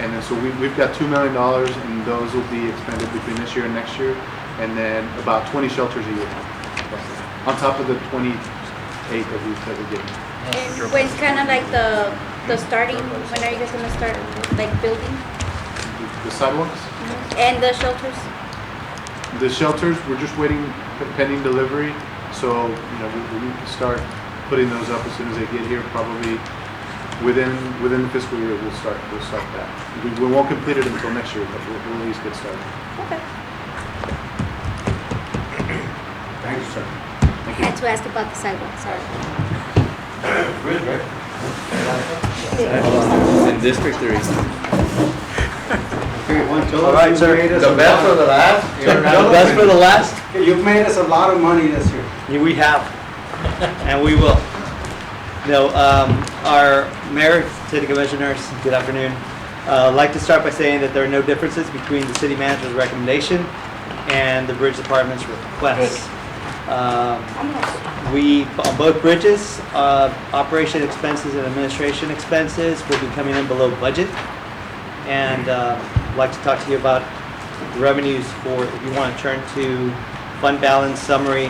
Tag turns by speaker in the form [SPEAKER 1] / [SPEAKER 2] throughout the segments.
[SPEAKER 1] And then, so we, we've got two million dollars and those will be expended between this year and next year. And then about twenty shelters a year. On top of the twenty-eight that we've said we're giving.
[SPEAKER 2] And when's kind of like the, the starting, when are you guys gonna start like building
[SPEAKER 1] The- The sidewalks,
[SPEAKER 2] and the shelters?
[SPEAKER 1] the shelters, we're just waiting pending delivery. So, you know, we, we need to start putting those up as soon as they get here, probably within, within the fiscal year, we'll start, we'll start that. We, we won't complete it until next year, but we'll, we'll at least get started.
[SPEAKER 2] Okay.
[SPEAKER 3] Thank you, sir.
[SPEAKER 1] Thank you.
[SPEAKER 2] Had to ask about the sidewalk, sorry.
[SPEAKER 3] Good, right?
[SPEAKER 4] In District Three.
[SPEAKER 3] Okay, one, two.
[SPEAKER 5] All right,
[SPEAKER 3] You've
[SPEAKER 5] sir.
[SPEAKER 3] made us
[SPEAKER 4] The
[SPEAKER 3] a
[SPEAKER 4] best
[SPEAKER 3] lot-
[SPEAKER 4] for the last.
[SPEAKER 3] You're not-
[SPEAKER 5] That's for the last,
[SPEAKER 3] You've made us a lot of money this year.
[SPEAKER 5] we have, and we will. No, um, our mayor, city commissioners, good afternoon. Uh, I'd like to start by saying that there are no differences between the city manager's recommendation and the bridge department's request. Um, We, on both bridges, uh, operation expenses and administration expenses will be coming in below budget. And uh, I'd like to talk to you about revenues for, if you want to turn to fund balance summary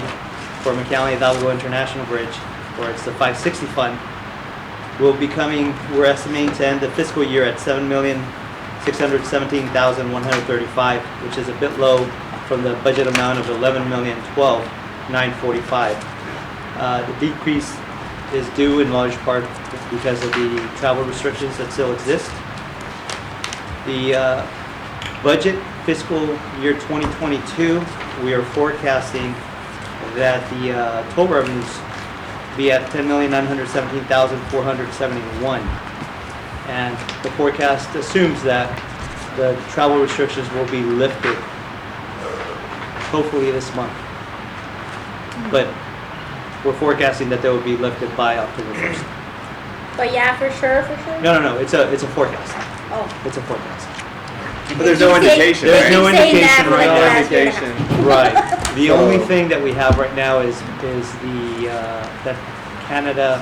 [SPEAKER 5] for McAllen Hidalgo International Bridge, or it's the 560 fund, will be coming, we're estimating to end the fiscal year at 7617135 which is a bit low from the budget amount of 11012945 uh, The decrease is due in large part because of the travel restrictions that still exist. The uh, budget fiscal year 2022, we are forecasting that the uh, toll revenues be at $10,917,471. And the forecast assumes that the travel restrictions will be lifted, hopefully this month. But we're forecasting that they will be lifted by October 1st.
[SPEAKER 2] But yeah, for sure, for sure?
[SPEAKER 5] No, no, no, it's a, it's a forecast.
[SPEAKER 2] Oh.
[SPEAKER 5] It's a forecast.
[SPEAKER 4] But there's no
[SPEAKER 2] You say-
[SPEAKER 4] indication,
[SPEAKER 5] There's
[SPEAKER 4] right?
[SPEAKER 5] no
[SPEAKER 2] You say that for like
[SPEAKER 5] indication right
[SPEAKER 2] the last
[SPEAKER 5] now.
[SPEAKER 2] year and a half.
[SPEAKER 4] Indication.
[SPEAKER 5] Right. The
[SPEAKER 4] So-
[SPEAKER 5] only thing that we have right now is, is the, uh, that Canada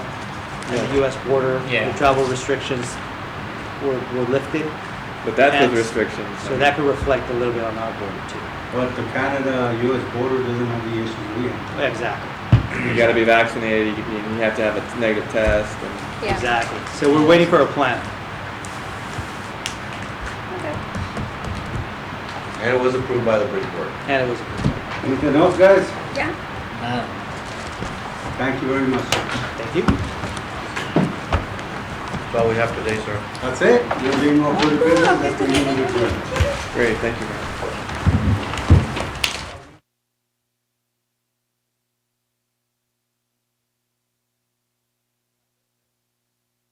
[SPEAKER 5] and the US border,
[SPEAKER 6] Yeah.
[SPEAKER 5] the travel restrictions were, were lifted.
[SPEAKER 4] But that's
[SPEAKER 5] And-
[SPEAKER 4] with restrictions.
[SPEAKER 5] So that could reflect a little bit on our border too.
[SPEAKER 3] But the Canada-US border doesn't have the issues we have.
[SPEAKER 5] Exactly,
[SPEAKER 4] You gotta be vaccinated, you, you have to have a negative test and.
[SPEAKER 2] Yeah.
[SPEAKER 5] exactly. So we're waiting for a plan.
[SPEAKER 2] Okay.
[SPEAKER 4] And it was approved by the bridge board.
[SPEAKER 5] And it was,
[SPEAKER 3] Anything else, guys?
[SPEAKER 2] Yeah,
[SPEAKER 3] Thank you very much. sir.
[SPEAKER 5] thank you.
[SPEAKER 4] That's all we have today, sir.
[SPEAKER 3] That's it? You're being offered a business, that's the end of the
[SPEAKER 4] Great, thank you, man.